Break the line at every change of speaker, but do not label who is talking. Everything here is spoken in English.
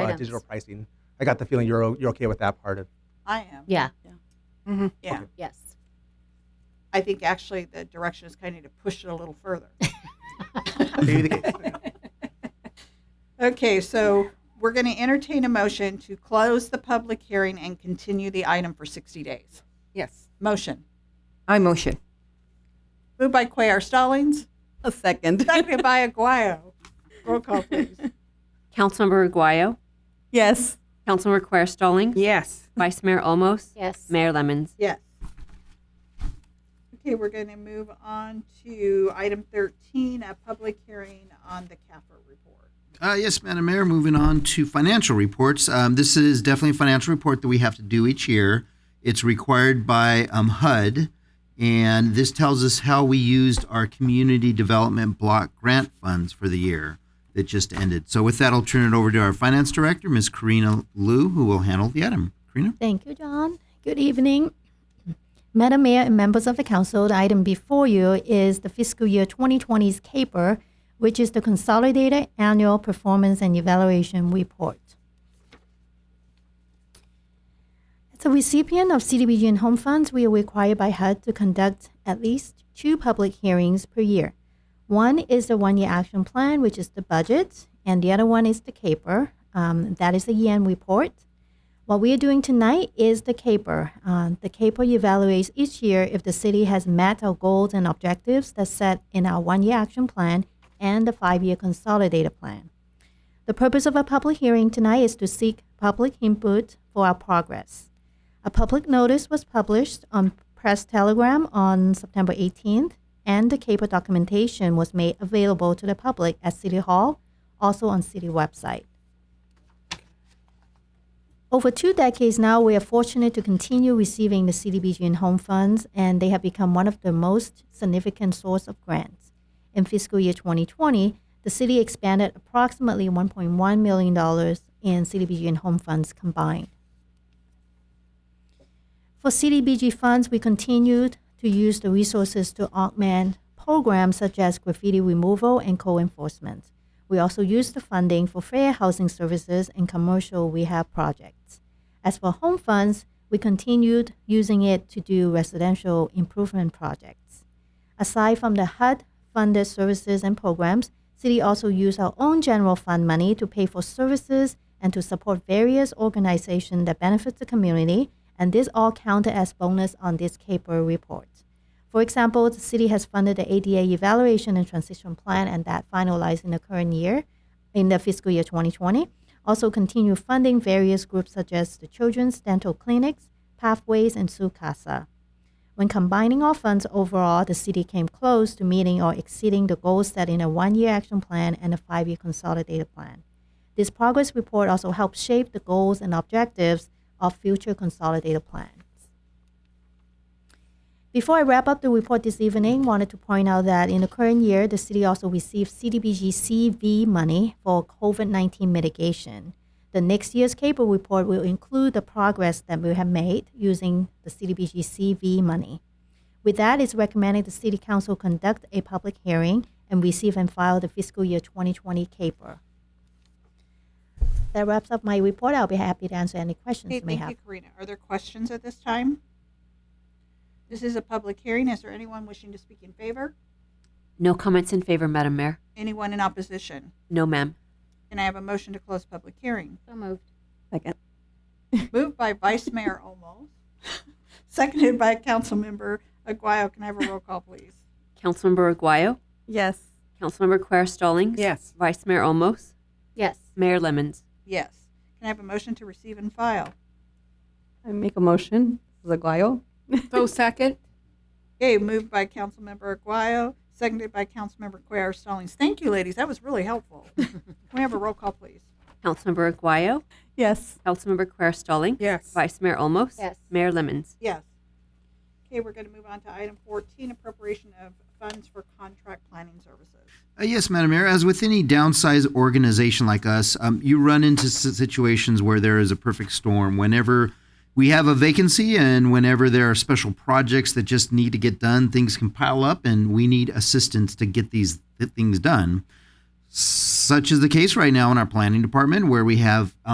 uh,
Items.
digital pricing. I got the feeling you're, o- you're okay with that part of,
I am.
Yeah.
Mhm.
Yeah.
Okay.
Yes.
I think actually the direction is kind of to push it a little further.
Maybe the-
Okay, so we're going to entertain a motion to close the public hearing and continue the item for 60 days.
Yes.
Motion.
I motion.
Moved by Cuellar Stallings,
A second.
seconded by Aguayo. Roll call, please.
Councilmember Aguayo,
Yes.
Councilmember Quer Stallings,
Yes.
Vice Mayor Olmos,
Yes.
Mayor Lemons.
Yes. Okay, we're going to move on to item 13, a public hearing on the CAFR report.
Uh, yes, Madam Mayor. Moving on to financial reports. Um, this is definitely a financial report that we have to do each year. It's required by um, HUD, and this tells us how we used our community development block grant funds for the year that just ended. So, with that, I'll turn it over to our finance director, Ms. Karina Liu, who will handle the item. Karina.
Thank you, John. Good evening. Madam Mayor and members of the council, the item before you is the fiscal year 2020's CAPER, which is the Consolidated Annual Performance and Evaluation Report. As a recipient of CDBG and home funds, we are required by HUD to conduct at least two public hearings per year. One is the one year action plan, which is the budget, and the other one is the CAPER, um, that is the year end report. What we are doing tonight is the CAPER. Uh, the CAPER evaluates each year if the city has met our goals and objectives that's set in our one year action plan and the five year consolidated plan. The purpose of our public hearing tonight is to seek public input for our progress. A public notice was published on Press Telegram on September 18th, and the CAPER documentation was made available to the public at City Hall, also on City website. Over two decades now, we are fortunate to continue receiving the CDBG and home funds, and they have become one of the most significant source of grants. In fiscal year 2020, the city expanded approximately $1.1 million in CDBG and home funds combined. For CDBG funds, we continued to use the resources to augment programs such as graffiti removal and co enforcement. We also used the funding for fair housing services and commercial rehab projects. As for home funds, we continued using it to do residential improvement projects. Aside from the HUD funded services and programs, City also used our own general fund money to pay for services and to support various organizations that benefit the community, and this all counted as bonus on this CAPER report. For example, the city has funded the ADA evaluation and transition plan and that finalized in the current year, in the fiscal year 2020. Also continue funding various groups such as the Children's Dental Clinics, Pathways, and Sukasa. When combining all funds overall, the city came close to meeting or exceeding the goals set in a one-year action plan and a five-year consolidated plan. This progress report also helps shape the goals and objectives of future consolidated plans. Before I wrap up the report this evening, wanted to point out that in the current year, the city also received CDBG CV money for COVID-19 mitigation. The next year's CAPER report will include the progress that we have made using the CDBG CV money. With that, it's recommended the City Council conduct a public hearing and receive and file the fiscal year 2020 CAPER. That wraps up my report. I'll be happy to answer any questions
Okay,
you may
thank
have.
you, Karina. Are there questions at this time? This is a public hearing. Is there anyone wishing to speak in favor?
No comments in favor, Madam Mayor.
Anyone in opposition?
No, ma'am.
Can I have a motion to close public hearing?
So moved.
Second.
Moved by Vice Mayor Olmos, seconded by Councilmember Aguayo. Can I have a roll call, please?
Councilmember Aguayo,
Yes.
Councilmember Quer Stallings,
Yes.
Vice Mayor Olmos,
Yes.
Mayor Lemons.
Yes. Can I have a motion to receive and file?
I make a motion. Zaguayo.
So second?
Okay, moved by Councilmember Aguayo, seconded by Councilmember Cuellar Stallings. Thank you, ladies. That was really helpful. Can we have a roll call, please?
Councilmember Aguayo,
Yes.
Councilmember Quer Stallings,
Yes.
Vice Mayor Olmos,
Yes.
Mayor Lemons.
Yes. Okay, we're going to move on to item 14, appropriation of funds for contract planning services.
Uh, yes, Madam Mayor. As with any downsized organization like us, um, you run into s- situations where there is a perfect storm. Whenever we have a vacancy and whenever there are special projects that just need to get done, things can pile up and we need assistance to get these th- things done. Such is the case right now in our planning department where we have